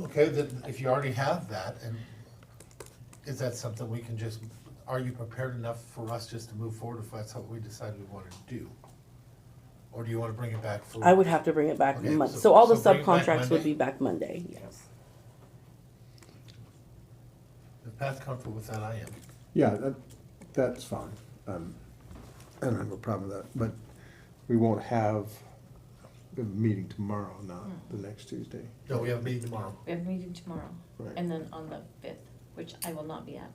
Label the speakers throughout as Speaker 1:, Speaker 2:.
Speaker 1: Okay, then if you already have that, and is that something we can just, are you prepared enough for us just to move forward if that's what we decide we wanna do? Or do you wanna bring it back for?
Speaker 2: I would have to bring it back
Speaker 1: Okay,
Speaker 2: Mon-
Speaker 1: so-
Speaker 2: so all the
Speaker 1: so bring it back
Speaker 2: subcontracts would
Speaker 1: Monday?
Speaker 2: be back Monday, yes.
Speaker 1: If Pat's comfortable with that, I am.
Speaker 3: Yeah, that, that's fine. Um, I don't have a problem with that, but we won't have a meeting tomorrow, not
Speaker 4: Hmm.
Speaker 3: the next Tuesday.
Speaker 1: No, we have a meeting tomorrow.
Speaker 4: We have a meeting tomorrow,
Speaker 3: Right.
Speaker 4: and then on the fifth, which I will not be at.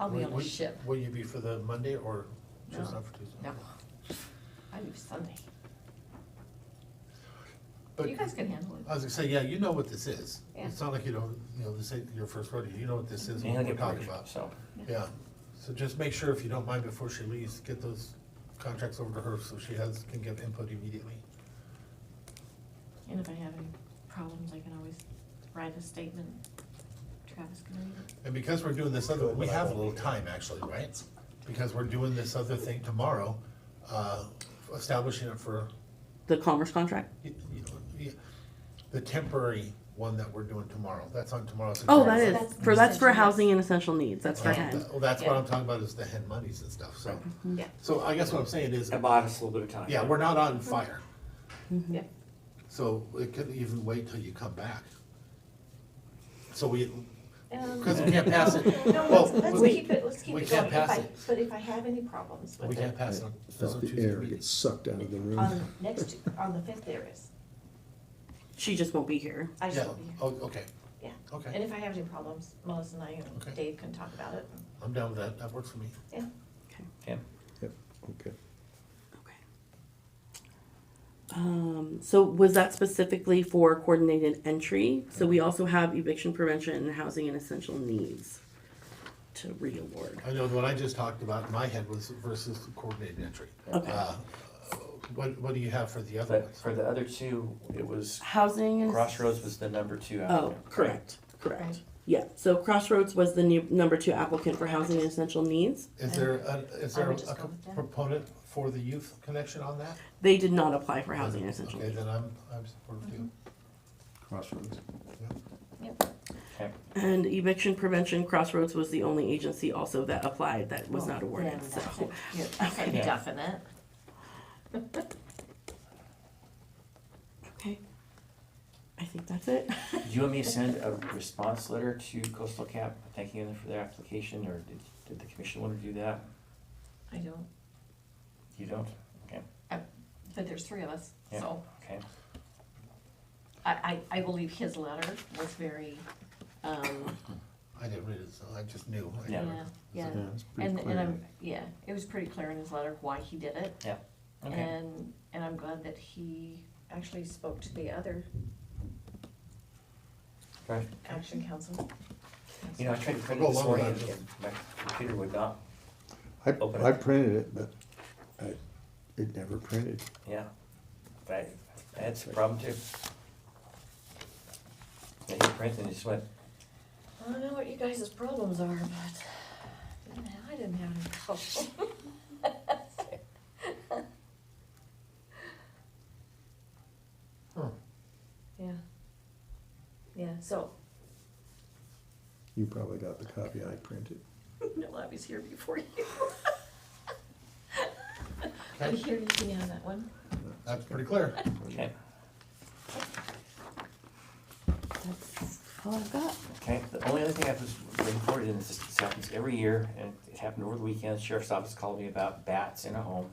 Speaker 4: I'll be on
Speaker 1: Will-
Speaker 4: a ship.
Speaker 1: Will you be for the Monday or just
Speaker 4: No.
Speaker 1: not for Tuesday?
Speaker 4: No, I leave Sunday.
Speaker 1: But, uh,
Speaker 4: You guys can handle it.
Speaker 1: I was gonna say, yeah, you know what this is.
Speaker 4: Yeah.
Speaker 1: It's not like you don't, you know, this ain't your first rodeo, you know what this is,
Speaker 5: And
Speaker 1: what
Speaker 5: I
Speaker 1: we're
Speaker 5: get
Speaker 1: talking
Speaker 5: worried,
Speaker 1: about.
Speaker 5: so.
Speaker 1: Yeah, so just make sure, if you don't mind, before she leaves, get those contracts over to her so she has, can give input immediately.
Speaker 4: And if I have any problems, I can always write a statement. Travis can read it.
Speaker 1: And because we're doing this other, we have a little time actually, right? Because we're doing this other thing tomorrow, uh, establishing it for,
Speaker 2: The commerce contract?
Speaker 1: you you know, the- the temporary one that we're doing tomorrow, that's on tomorrow's.
Speaker 2: Oh, that
Speaker 1: agenda.
Speaker 2: is,
Speaker 4: that's
Speaker 2: for, that's for
Speaker 4: essential.
Speaker 2: housing and essential needs, that's for
Speaker 1: Uh,
Speaker 2: HEN.
Speaker 1: Well, that's what I'm
Speaker 4: Yeah.
Speaker 1: talking about, is the head monies and stuff, so.
Speaker 4: Yeah,
Speaker 1: So I guess what I'm saying is,
Speaker 5: That bought us a little bit of time.
Speaker 1: yeah, we're not on fire,
Speaker 4: yeah.
Speaker 1: so it could even wait till you come back. So we,
Speaker 6: Um,
Speaker 1: Because we can't pass it.
Speaker 6: No,
Speaker 1: Well,
Speaker 6: let's, let's
Speaker 1: we-
Speaker 6: keep it, let's keep
Speaker 1: we
Speaker 6: it
Speaker 1: can't
Speaker 6: going, if
Speaker 1: pass
Speaker 6: I,
Speaker 1: it.
Speaker 6: but if I have any problems
Speaker 1: We
Speaker 6: with
Speaker 1: can't
Speaker 6: it,
Speaker 1: pass it on, there's no
Speaker 3: Felt the
Speaker 1: Tuesday
Speaker 3: air gets
Speaker 1: meetings.
Speaker 3: sucked out of the room.
Speaker 6: on
Speaker 4: Um,
Speaker 6: next, on the fifth there is,
Speaker 2: She just won't be here.
Speaker 6: I
Speaker 1: Yeah,
Speaker 6: just won't be here,
Speaker 1: oh, okay,
Speaker 6: yeah. And
Speaker 1: okay,
Speaker 6: if I have any problems, Melissa and I and
Speaker 1: Okay.
Speaker 6: Dave can talk about it,
Speaker 1: I'm down with that, that works for me.
Speaker 6: yeah.
Speaker 5: Tim?
Speaker 3: Yep, okay.
Speaker 2: Okay. Um, so was that specifically for coordinated entry? So we also have eviction prevention and housing and essential needs to reaward.
Speaker 1: I know what I just talked about in my head was versus coordinated entry.
Speaker 2: Okay.
Speaker 1: Uh, What, what do you have for the other
Speaker 5: But
Speaker 1: ones?
Speaker 5: for the other two, it was,
Speaker 2: Housing and.
Speaker 5: Crossroads was the number two
Speaker 2: Oh,
Speaker 5: applicant.
Speaker 2: correct, correct.
Speaker 6: Right.
Speaker 2: Yeah, so Crossroads was the new, number two applicant for housing and essential needs.
Speaker 1: Is there, a- is there
Speaker 6: I would just
Speaker 1: a
Speaker 6: go with that.
Speaker 1: proponent for the youth connection on that?
Speaker 2: They did not apply for housing and essential
Speaker 1: Mm-hmm. Okay,
Speaker 2: needs.
Speaker 1: then I'm, I'm supportive too.
Speaker 6: Mm-hmm.
Speaker 3: Crossroads.
Speaker 5: Okay.
Speaker 2: And eviction prevention, Crossroads was the only agency also that applied that was not awarded,
Speaker 4: Then that's
Speaker 2: so.
Speaker 4: it. You're pretty
Speaker 5: Yeah.
Speaker 4: definite.
Speaker 2: Okay. I think that's it.
Speaker 5: Do you want me to send a response letter to Coastal Cap thanking them for their application, or did, did the commission want to do that?
Speaker 6: I don't,
Speaker 5: You don't? Okay,
Speaker 4: But there's three of us,
Speaker 5: Yeah.
Speaker 4: so
Speaker 5: okay.
Speaker 4: I, I, I believe his letter was very, um,
Speaker 1: I didn't read it, so I just knew. I-
Speaker 5: Yeah.
Speaker 4: yeah, yeah.
Speaker 3: Yeah, it's pretty
Speaker 4: And,
Speaker 3: clear.
Speaker 4: and I'm, yeah, it was pretty clear in his letter why he did it.
Speaker 2: Uh,
Speaker 5: Okay,
Speaker 4: And, and I'm glad that he actually spoke to the other
Speaker 5: right.
Speaker 6: action council,
Speaker 5: You know, I tried to print
Speaker 1: I'll
Speaker 5: it
Speaker 1: go
Speaker 5: this
Speaker 1: along with
Speaker 5: morning,
Speaker 1: that.
Speaker 5: and my computer would not, open
Speaker 3: I,
Speaker 5: it.
Speaker 3: I printed it, but I, it never printed.
Speaker 5: yeah. But I- that's a problem too. I hit print and it just went,
Speaker 6: I don't know what you guys' problems are, but I didn't have any problems.
Speaker 1: Huh.
Speaker 6: Yeah, yeah, so,
Speaker 3: You probably got the copy I printed.
Speaker 6: no, I was here before you. I
Speaker 1: Okay,
Speaker 6: hear you can have that one.
Speaker 1: That's pretty clear.
Speaker 5: okay,
Speaker 2: That's all I've got.
Speaker 5: okay. The only other thing I was reported, and this, this happens every year, and it happened over the weekend, sheriff's office called me about bats in a home.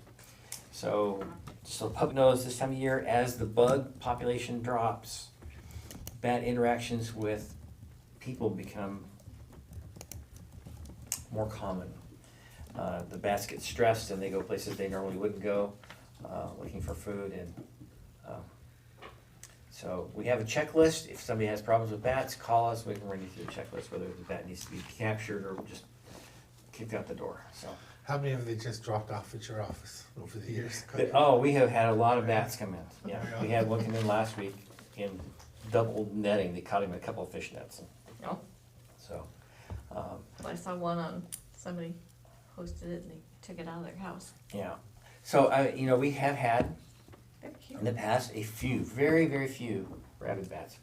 Speaker 5: So, so the public knows this time of year, as the bug population drops, bat interactions with people become more common. Uh, the bats get stressed and they go places they normally wouldn't go, uh, looking for food and, um, so we have a checklist, if somebody has problems with bats, call us, we can run you through the checklist, whether the bat needs to be captured or just kicked out the door, so.
Speaker 1: How many have they just dropped off at your office over the years?
Speaker 5: But, oh, we have had a lot of bats come in, yeah, we had one come in last week in double netting, they caught him in a couple of fish nets,
Speaker 4: No,
Speaker 5: so. Um,
Speaker 4: I saw one on, somebody posted it and they took it out of their house.
Speaker 5: yeah, so, I, you know, we have had
Speaker 4: They're cute.
Speaker 5: in the past, a few, very, very few rabid bats.